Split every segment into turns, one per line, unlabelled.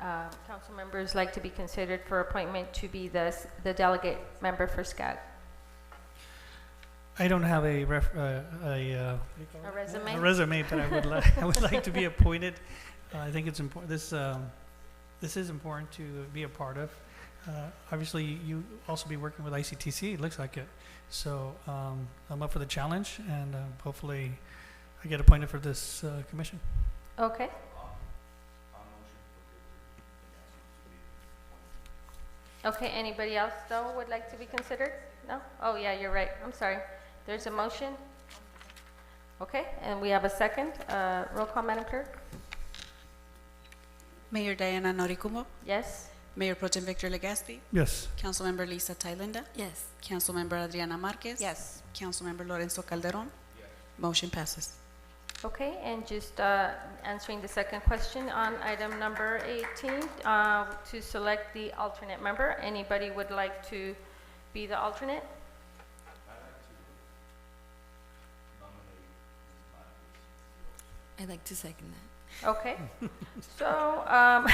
uh, council members like to be considered for appointment to be the, s- the delegate member for SCAG?
I don't have a ref, uh, a, uh, what do you call
A
it?
resume?
A resume, but I would like, I would like to be appointed. Uh, I think it's important, this, um, this is important to be a part of. Uh, obviously, you also be working with ICTC, it looks like it. So, um, I'm up for the challenge and, um, hopefully I get appointed for this, uh, commission.
Okay. Okay, anybody else though would like to be considered? No? Oh, yeah, you're right, I'm sorry. There's a motion? Okay, and we have a second, uh, roll call, Madam Clerk?
Mayor Diana Noricumbo,
Yes?
Mayor Pro Tem Victor Legaspi,
Yes.
Councilmember Lisa Thailenda,
Yes.
Councilmember Adriana Marquez.
Yes.
Councilmember Lorenzo Calderon. Motion passes.
Okay, and just uh, answering the second question on item number 18, uh, to select the alternate member. Anybody would like to be the alternate?
I'd like to second that.
Okay. So, um,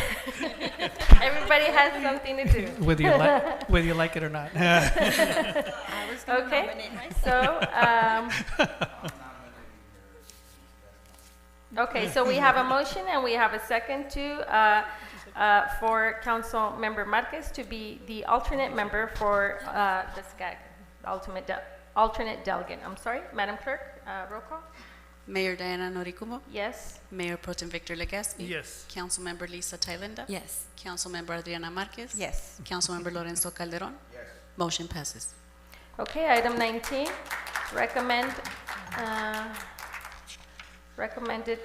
everybody has something to do.
Whether you like, whether you like it or not.
I was
gonna Okay. nominate So, um, okay, so we have a motion and we have a second to, uh, uh, for Council Member Marquez to be the alternate member for, uh, the SCAG, the ultimate, de- alternate delegate. I'm sorry, Madam Clerk, uh, roll call?
Mayor Diana Noricumbo,
Yes?
Mayor Pro Tem Victor Legaspi.
Yes.
Councilmember Lisa Thailenda.
Yes.
Councilmember Adriana Marquez.
Yes.
Councilmember Lorenzo Calderon. Motion passes.
Okay, item 19, recommend, uh, recommended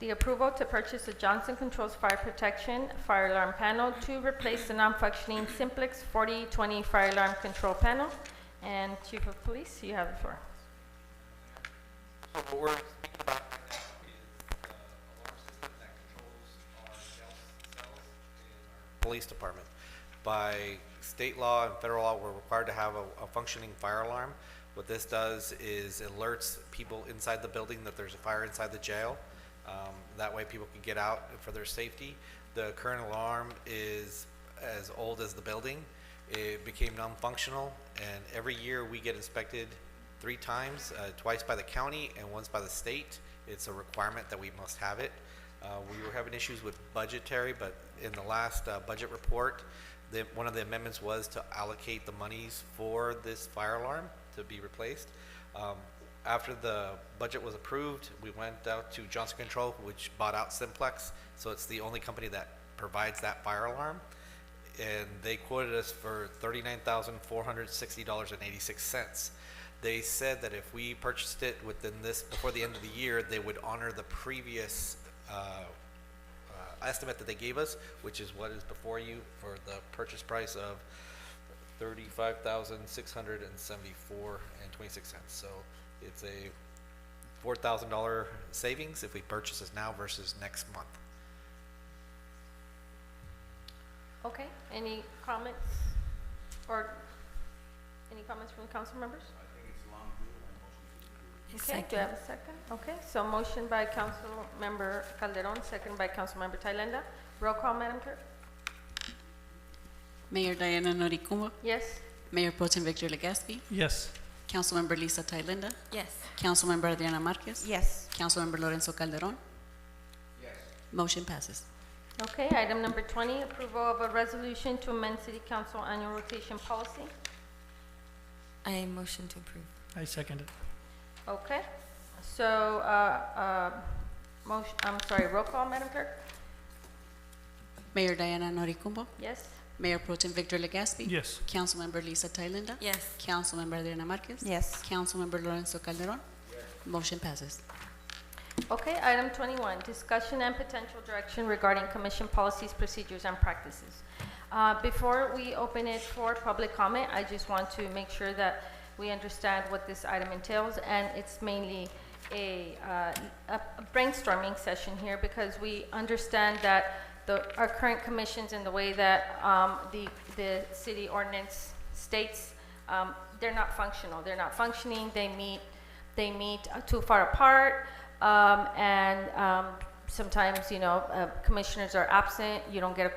the approval to purchase a Johnson Controls Fire Protection Fire Alarm Panel to replace the non-functioning Simplex 4020 Fire Alarm Control Panel. And Chief of Police, you have the floor.
So what we're speaking about right now is uh, alarm system that controls our cell- cells in our police department. By state law and federal law, we're required to have a, a functioning fire alarm. What this does is alerts people inside the building that there's a fire inside the jail. Um, That way people can get out for their safety. The current alarm is as old as the building. It became non-functional, and every year we get inspected three times, uh, twice by the county and once by the state. It's a requirement that we must have it. Uh, We were having issues with budgetary, but in the last uh, budget report, the, one of the amendments was to allocate the monies for this fire alarm to be replaced. Um, After the budget was approved, we went out to Johnson Control, which bought out Simplex, so it's the only company that provides that fire alarm and they quoted us for thirty-nine thousand four hundred sixty dollars and eighty-six cents. They said that if we purchased it within this, before the end of the year, they would honor the previous, uh, uh, estimate that they gave us, which is what is before you for the purchase price of thirty-five thousand six hundred and seventy-four and twenty-six cents. So it's a four thousand dollar savings if we purchase this now versus next month.
Okay, any comments? Or any comments from council members? Okay, do I have a second? Okay, so motion by Council Member Calderon, second by Council Member Thailenda. Roll call, Madam Clerk?
Mayor Diana Noricumbo,
Yes?
Mayor Pro Tem Victor Legaspi,
Yes.
Councilmember Lisa Thailenda,
Yes.
Councilmember Adriana Marquez.
Yes.
Councilmember Lorenzo Calderon. Motion passes.
Okay, item number 20, approval of a resolution to amend City Council annual rotation policy.
I motion to approve.
I second it.
Okay, so, uh, uh, motion, I'm sorry, roll call, Madam Clerk?
Mayor Diana Noricumbo,
Yes?
Mayor Pro Tem Victor Legaspi.
Yes.
Councilmember Lisa Thailenda.
Yes.
Councilmember Adriana Marquez.
Yes.
Councilmember Lorenzo Calderon. Motion passes.
Okay, item 21, discussion and potential direction regarding commission policies, procedures, and practices. Uh, Before we open it for public comment, I just want to make sure that we understand what this item entails, and it's mainly a uh, a brainstorming session here because we understand that the, our current commissions and the way that um, the, the city ordinance states, um, they're not functional. They're not functioning, they meet they meet uh, too far apart, um, and um, sometimes, you know, uh, commissioners are absent, you don't get a